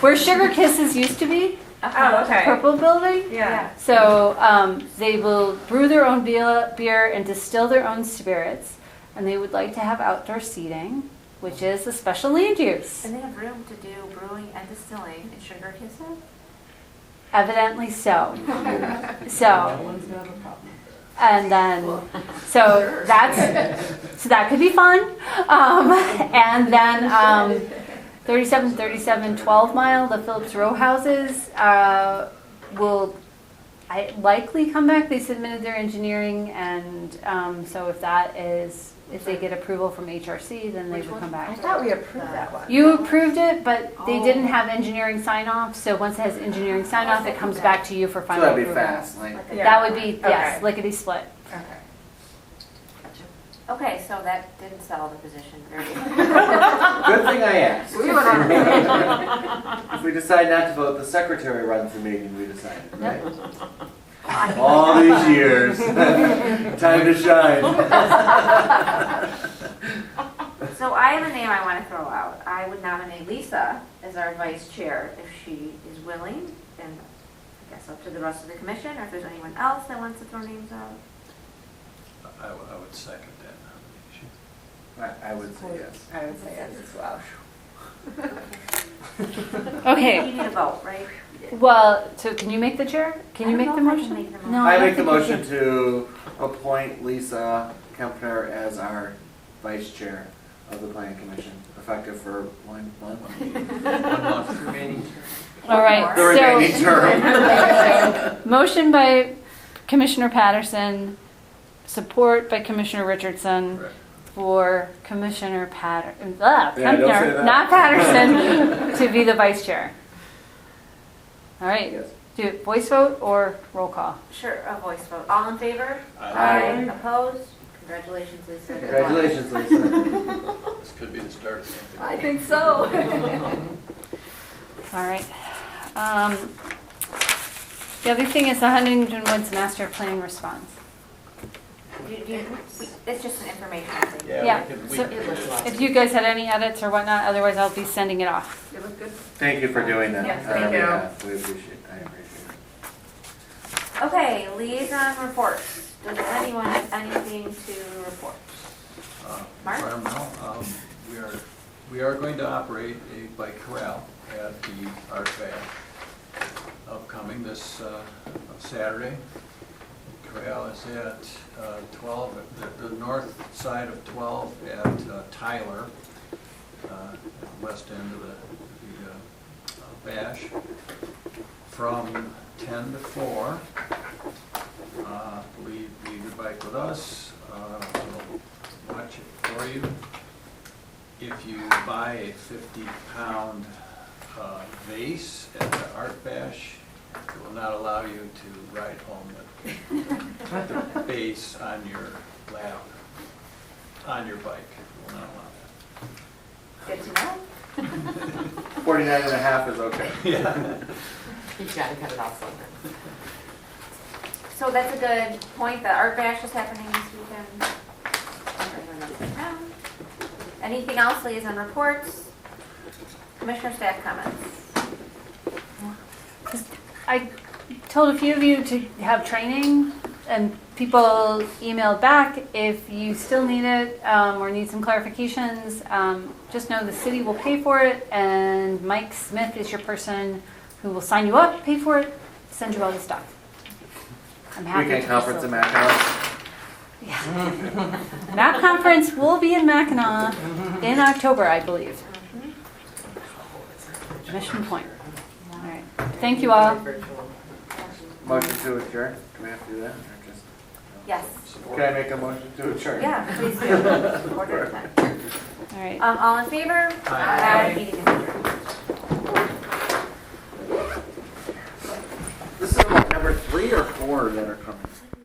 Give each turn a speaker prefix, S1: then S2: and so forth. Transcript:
S1: Where Sugar Kisses used to be,
S2: Oh, okay.
S1: purple building.
S2: Yeah.
S1: So um, they will brew their own beer, beer and distill their own spirits, and they would like to have outdoor seating, which is a special land use.
S3: And they have room to do brewing and distilling and sugar kisses?
S1: Evidently so. So, and then, so that's, so that could be fun. Um, and then, um, 37, 37, 12 mile, the Phillips Row houses, uh, will I likely come back. They submitted their engineering and, um, so if that is, if they get approval from HRC, then they
S3: Which
S1: would
S3: one?
S1: come
S2: I
S1: back.
S2: thought we approved that one.
S1: You approved it, but they
S3: Oh.
S1: didn't have engineering sign off, so once it has engineering sign off, it comes back to you for
S4: So
S1: final
S4: that'd be
S1: approval.
S4: fast, like,
S3: Like a-
S2: Yeah.
S1: That would be, yes,
S2: Okay.
S1: lickety split.
S2: Okay.
S3: Okay, so that didn't settle the position very
S4: good thing I asked.
S3: We were on-
S4: If we decide not to vote, the secretary runs the meeting, we decided, right?
S3: well.
S4: All these years, time to shine.
S3: So I have a name I want to throw out. I would nominate Lisa as our vice chair if she is willing, and I guess up to the rest of the commission, or if there's anyone else that wants to throw names out.
S5: I w- I would second that nomination.
S4: I I would say yes.
S2: I would say yes as well.
S3: You need a vote, right?
S1: Well, so can you make the chair? Can you
S3: I don't
S1: make the
S3: know if I can
S1: motion?
S3: make the motion.
S1: No,
S4: I
S1: don't
S4: make the
S1: think you
S4: motion to appoint Lisa Kempner as our vice chair of the planning commission, effective for one, one month.
S5: One month remaining.
S1: can. All right,
S4: The remaining
S1: so,
S4: term.
S1: motion by Commissioner Patterson, support by Commissioner Richardson
S5: Correct.
S1: for Commissioner Patter, uh,
S4: Yeah, don't say
S1: Kempner,
S4: that.
S1: not Patterson, to be the vice chair. All right,
S4: Yes.
S1: do it voice vote or roll call?
S3: Sure, a voice vote. All in favor? Uh,
S4: Aye.
S3: Opposed? Congratulations, Lisa. Good luck.
S4: Congratulations, Lisa.
S5: This could be the start of something.
S2: I think so.
S1: All right. Um, The other thing is the Huntington Woods Master Plan response.
S3: Do you- do you- we- It's just an informational thing.
S5: Yeah, we
S1: Yeah,
S5: can- we
S1: so-
S5: can do it.
S1: If you guys had any edits or whatnot, otherwise I'll be sending it off.
S2: It looked good.
S4: Thank you for doing that.
S2: Yes,
S4: Uh,
S2: thank you.
S4: yeah, We appreciate, I appreciate it.
S3: Okay, liaison reports. Does anyone have anything to report?
S5: Uh,
S3: Mark?
S5: environmental, um, We are, we are going to operate a bike corral at the Art Bath upcoming this uh, Saturday. Corral is at uh, 12, the, the north side of 12 at uh, Tyler, uh, at the west end of the, the uh, uh, Bash, from 10 to 4. Uh, Leave, leave your bike with us. Uh, We'll watch it for you. If you buy a fifty-pound vase at the Art Bash, it will not allow you to ride home with the vase on your lap, on your bike. It will not allow that.
S3: Good to know.
S4: 49 and a half is okay.
S6: He's got to cut it off somewhere.
S3: So that's a good point, the art bash is happening this weekend. Everyone else in town. Anything else, liaison reports? Commissioner staff comments?
S1: I told a few of you to have training and people emailed back. If you still need it um, or need some clarifications, um, just know the city will pay for it and Mike Smith is your person who will sign you up, pay for it, send you all the stuff. I'm happy
S4: Weekend
S1: to
S4: conference
S1: facilitate.
S4: in Mackinac.
S1: MAP conference will be in Mackinac in October, I believe. Mission Point. All right. Thank you all.
S6: Virtual.
S4: Motion to adjourn, do we have to do that? or just-
S3: Yes,
S5: Support.
S4: Can I make a motion to adjourn?
S3: yeah, please do. Order of time.
S1: All right.
S3: Um, all in favor?
S5: Aye.
S3: Meeting is adjourned.
S4: This is like number three or four that are coming.